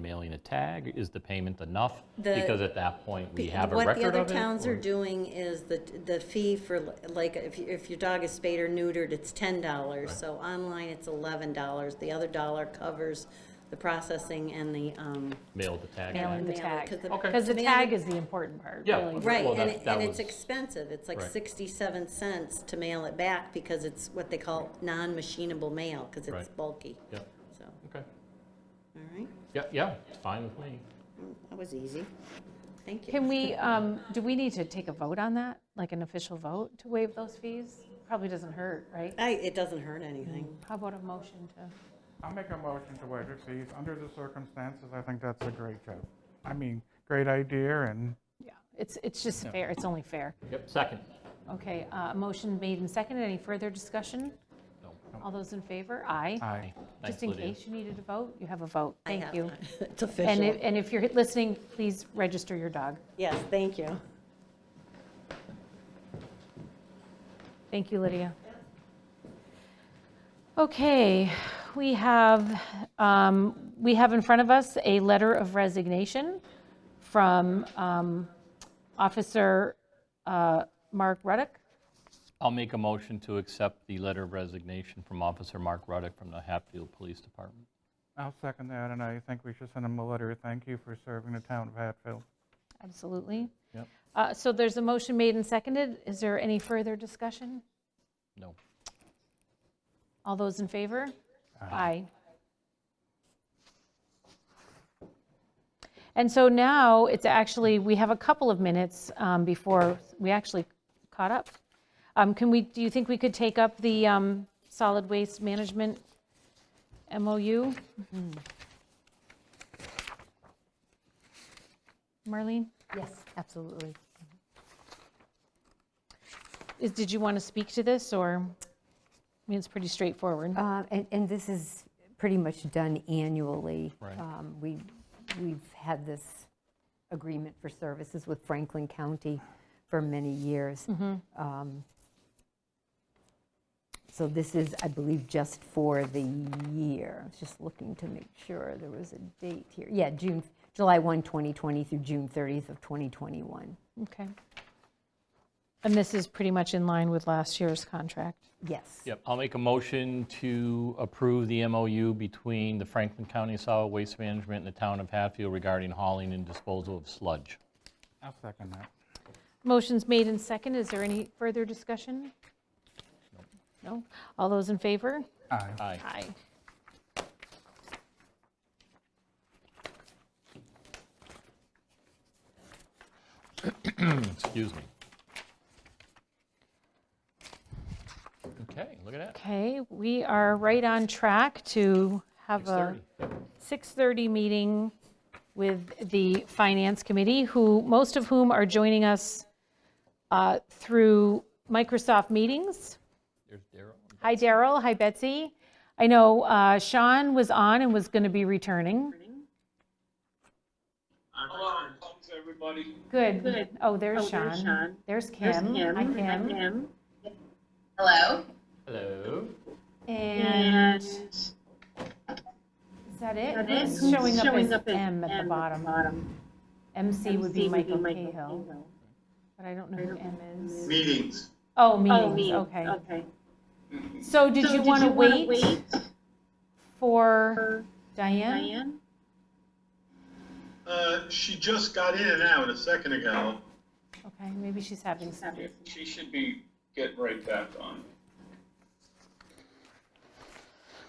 mailing a tag? Is the payment enough? The- Because at that point, we have a What the record other of it. towns or- are doing is the, the fee for, like, if, you- if your dog is spayed or neutered, it's ten dollars. So online, it's eleven dollars. The other dollar covers the processing and the, um, Mail the tag. Mailing the back. mail it, tag. 'cause the- Okay. Because the mail tag it- is the important part, Yeah. really. Right, Well, and that- it, that and it's was- expensive. It's like Right. sixty-seven cents to mail it back because it's what they call non-machinable mail, because it's Right. bulky. Yep. So, Okay. all right, Yeah, yeah, it's fine with me. that was easy. Thank you. Can we, um, do we need to take a vote on that? Like an official vote to waive those fees? Probably doesn't hurt, right? I, it doesn't hurt anything. How about a motion to? I'll make a motion to waive the fees. Under the circumstances, I think that's a great job. I mean, great idea and Yeah, it's, it's just fair, it's only fair. Yep, second. Okay, uh, motion made and seconded, any further discussion? No. All those in favor? Aye. I, Thanks, Just in Lydia. case you needed a vote, you have a vote, I have thank you. not. It's And if, official. and if you're listening, please register your dog. Yes, thank you. Thank you, Lydia. Okay, we have, um, we have in front of us a letter of resignation from um, Officer uh, Mark Ruddick. I'll make a motion to accept the letter of resignation from Officer Mark Ruddick from the Hatfield Police Department. I'll second that, and I think we should send him a letter, of thank you for serving the town of Hatfield. Absolutely. Yep. Uh, So there's a motion made and seconded. Is there any further discussion? No. All those in favor? Aye. And so now, it's actually, we have a couple of minutes um, before we actually caught up. Um, Can we, do you think we could take up the um, solid waste management MOU? Marlene, Yes, absolutely. is, did you want to speak to this, or, I mean, it's pretty straightforward. Uh, And and this is pretty much done annually. Right. Um, We, we've had this agreement for services with Franklin County for many years. Um, So this is, I believe, just for the year. I was just looking to make sure there was a date here. Yeah, June, July 1, 2020 through June 30th of 2021. Okay. And this is pretty much in line with last year's contract? Yes. Yep, I'll make a motion to approve the MOU between the Franklin County Solid Waste Management and the Town of Hatfield regarding hauling and disposal of sludge. I'll second that. Motion's made and second. Is there any further discussion? No? All those in favor? Aye. Aye. Aye. Excuse me. Okay, look at that. Okay, we are right on track to have a 6:30. 6:30 meeting with the Finance Committee, who, most of whom are joining us uh, through Microsoft Meetings. There's Darrell. Hi, Daryl. Hi, Betsy. I know uh, Sean was on and was going to be returning. Hello, thanks everybody. Good. Oh, there's Oh, there's Sean. Sean. There's Kim. Hi, Hi, Kim. Kim. Hello. And is that it? Who's showing up as M at the bottom? MC would be Michael Cahill, but I don't know who M is. Meetings. Oh, Oh, meetings, me, okay. okay. So did So you want to wanna wait for for Diane? Diane? Uh, she just got in and out a second ago. Okay, maybe she's having some. She should be getting right back on.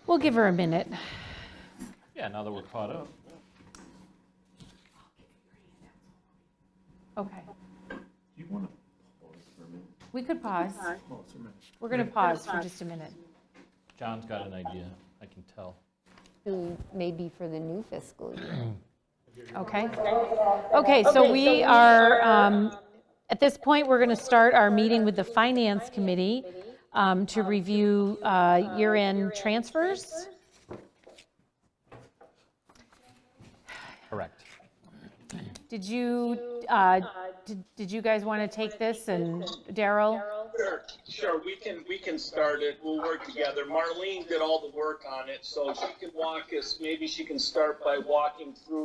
We'll give her a minute. Yeah, now that we're caught up. Okay. Do you want to pause for a minute? We could pause. Pause. Pause for a minute. We're going to pause for pause. just a minute. John's got an idea, I can tell. So Maybe for the new fiscal year. Okay. Okay, so we are, um, at this point, we're going to start our meeting with the Finance Committee um, to review uh, year-end transfers. Correct. Did you, uh, did did you guys want to take this? And Daryl? Sure, sure, we can, we can start it, we'll work together. Marlene did all the work on it, so she can walk us, maybe she can start by walking through